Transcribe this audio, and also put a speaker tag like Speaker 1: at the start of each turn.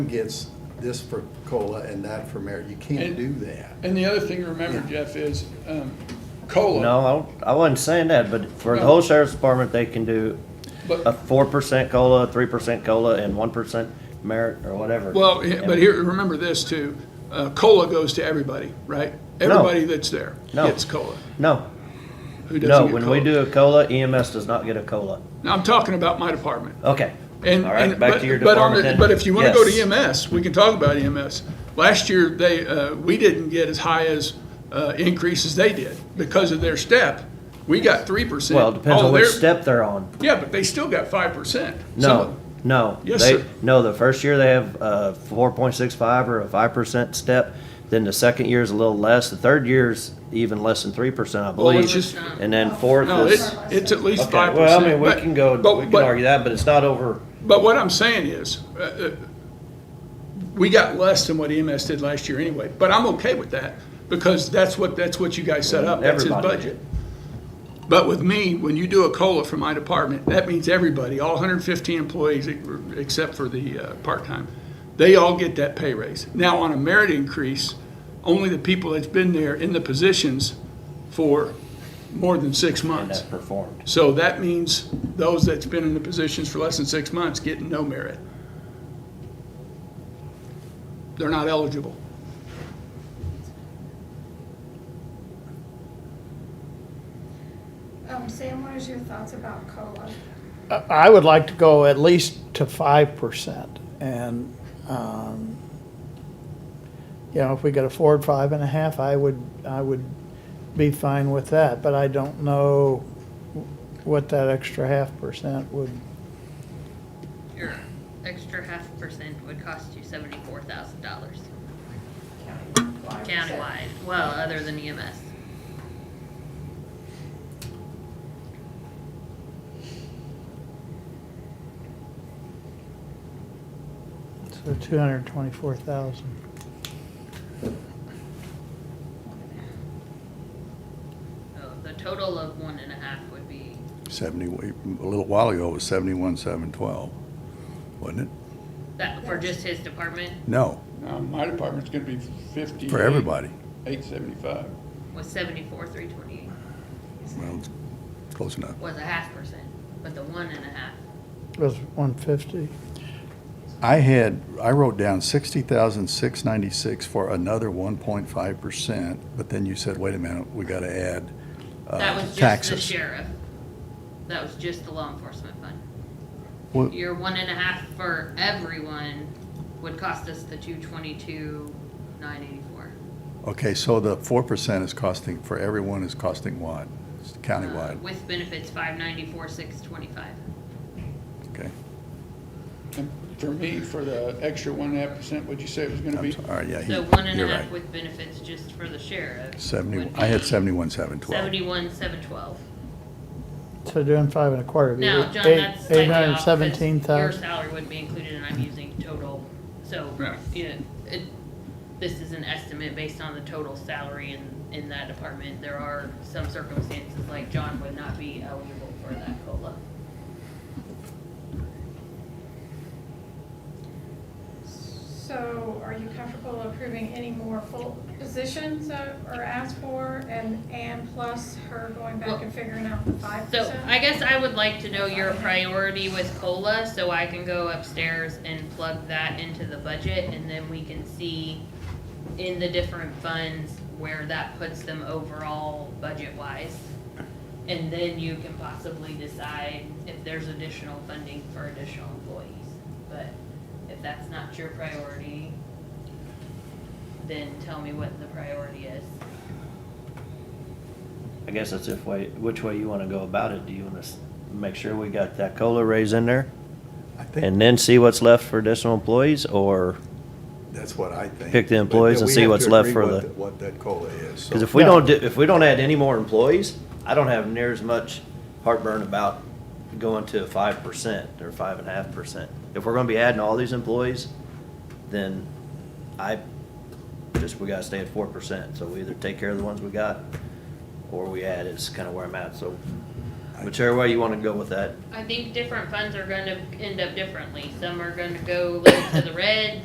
Speaker 1: gets this for COLA and that for merit. You can't
Speaker 2: And-
Speaker 1: do that.
Speaker 2: And the other thing to remember, Jeff, is um, COLA.
Speaker 3: No, I don't- I wasn't saying that, but for the whole sheriff's department, they can do a
Speaker 2: But,
Speaker 3: four percent COLA, three percent COLA, and one percent merit or whatever.
Speaker 2: well, he- but here, remember this too, uh, COLA goes to everybody, right? Everybody that's there
Speaker 3: No.
Speaker 2: gets COLA.
Speaker 3: No,
Speaker 2: Who doesn't
Speaker 3: no,
Speaker 2: get
Speaker 3: when we
Speaker 2: COLA?
Speaker 3: do a COLA, EMS does not get a COLA.
Speaker 2: Now, I'm talking about my department.
Speaker 3: Okay.
Speaker 2: And,
Speaker 3: All right,
Speaker 2: and-
Speaker 3: back
Speaker 2: but-
Speaker 3: to your
Speaker 2: but on
Speaker 3: department
Speaker 2: the-
Speaker 3: then.
Speaker 2: But if you want to E go
Speaker 3: Yes.
Speaker 2: to EMS, we can talk about EMS. Last year, they, uh, we didn't get as high as uh, increases they did because of their step. We got three percent.
Speaker 3: Well, it depends on which step they're on.
Speaker 2: Yeah, but they still got five percent.
Speaker 3: No, no.
Speaker 2: Yes,
Speaker 3: they,
Speaker 2: sir.
Speaker 3: No, the first year they have uh, 4.65 or a 5% step. Then the second year is a little less. The third year is even less than 3%, I
Speaker 2: Well,
Speaker 3: believe.
Speaker 2: it's just-
Speaker 3: and then fourth
Speaker 2: No,
Speaker 3: is.
Speaker 2: it's, it's at least
Speaker 3: okay,
Speaker 2: five percent.
Speaker 3: well, I mean, we can go, we can argue that, but it's not over.
Speaker 2: But what I'm saying is, uh, uh, we got less than what EMS did last year anyway, but I'm okay with that, because that's what, that's what you guys set up, that's his
Speaker 3: Everybody.
Speaker 2: budget. But with me, when you do a COLA for my department, that means everybody, all hundred and fifteen employees, e- except for the, uh, part-time, they all get that pay raise. Now, on a merit increase, only the people that's been there in the positions for more than six
Speaker 3: And
Speaker 2: months.
Speaker 3: that's performed.
Speaker 2: So that means those that's been in the positions for less than six months getting no merit. They're not eligible.
Speaker 4: Um, Sam, what is your thoughts about COLA?
Speaker 5: I I would like to go at least to five percent and, um, you know, if we could afford five and a half, I would, I would be fine with that, but I don't know what that extra half percent would,
Speaker 6: Your extra half percent would cost you seventy-four thousand dollars
Speaker 4: Countywide.
Speaker 6: countywide, well, other than E EMS.
Speaker 5: so two hundred and twenty-four thousand.
Speaker 6: So the total of one and a half would be,
Speaker 1: Seventy, a little while ago, it was seventy-one, seven, twelve, wasn't it?
Speaker 6: that, for just his department,
Speaker 1: No,
Speaker 2: my department's gonna be fifty.
Speaker 1: for everybody.
Speaker 2: Eight seventy-five.
Speaker 6: was seventy-four, three twenty-eight,
Speaker 1: Well, close enough.
Speaker 6: was a half percent, but the one and a half,
Speaker 5: Was one fifty.
Speaker 1: I had, I wrote down sixty thousand, six ninety-six for another one point five percent, but then you said, wait a minute, we gotta add uh,
Speaker 6: that was just the
Speaker 1: taxes.
Speaker 6: sheriff. That was just the law enforcement fund.
Speaker 1: Well-
Speaker 6: Your one and a half for everyone would cost us the two twenty-two, nine eighty-four.
Speaker 1: Okay, so the four percent is costing, for everyone is costing what? It's Countywide,
Speaker 6: Uh, With benefits, five ninety-four, six twenty-five.
Speaker 1: okay.
Speaker 2: For me, for the extra one and a half percent, what'd you say it was gonna
Speaker 1: I'm
Speaker 2: be?
Speaker 1: sorry, all right, yeah,
Speaker 6: So
Speaker 1: he-
Speaker 6: one and
Speaker 1: you're
Speaker 6: a half
Speaker 1: right.
Speaker 6: with benefits just for the sheriff.
Speaker 1: Seventy, I had seventy-one, seven, twelve.
Speaker 6: Seventy-one, seven twelve.
Speaker 5: So doing five and a quarter would be
Speaker 6: Now, John,
Speaker 5: eight,
Speaker 6: that's
Speaker 5: eight
Speaker 6: slightly
Speaker 5: hundred and
Speaker 6: off, 'cause
Speaker 5: seventeen
Speaker 6: your
Speaker 5: thousand.
Speaker 6: salary wouldn't be included, and I'm
Speaker 1: Hmm.
Speaker 6: using total, so,
Speaker 2: Right.
Speaker 6: you know, it, this is an estimate based on the total salary in, in that department. There are some circumstances, like John would not be eligible for that COLA.
Speaker 4: So are you comfortable approving any more full positions that are asked for and, and plus her going back and figuring out the five
Speaker 6: So
Speaker 4: percent?
Speaker 6: I guess I would like to know your priority with COLA, so I can go upstairs and plug that into the budget, and then we can see in the different funds where that puts them overall budget-wise. And then you can possibly decide if there's additional funding for additional employees. But if that's not your priority, then tell me what the priority is.
Speaker 3: I guess that's if way, which way you want to go about it. Do you want to make sure we got that COLA raise in there
Speaker 1: I think
Speaker 3: and then see what's left for additional employees or?
Speaker 1: that's what I think.
Speaker 3: pick the
Speaker 1: But
Speaker 3: employees and
Speaker 1: we
Speaker 3: see
Speaker 1: have
Speaker 3: what's
Speaker 1: to
Speaker 3: left
Speaker 1: agree
Speaker 3: for
Speaker 1: what
Speaker 3: the-
Speaker 1: What that COLA is. so-
Speaker 3: Because if we
Speaker 5: Yeah.
Speaker 3: don't, do- if we don't add any more employees, I don't have near as much heartburn about going to five percent or five and a half percent. If we're gonna be adding all these employees, then I, just, we gotta stay at four percent. So we either take care of the ones we got, or we add is kind of where I'm at, so whichever way you wanna go with that.
Speaker 6: I think different funds are gonna end up differently. Some are gonna go like to the red,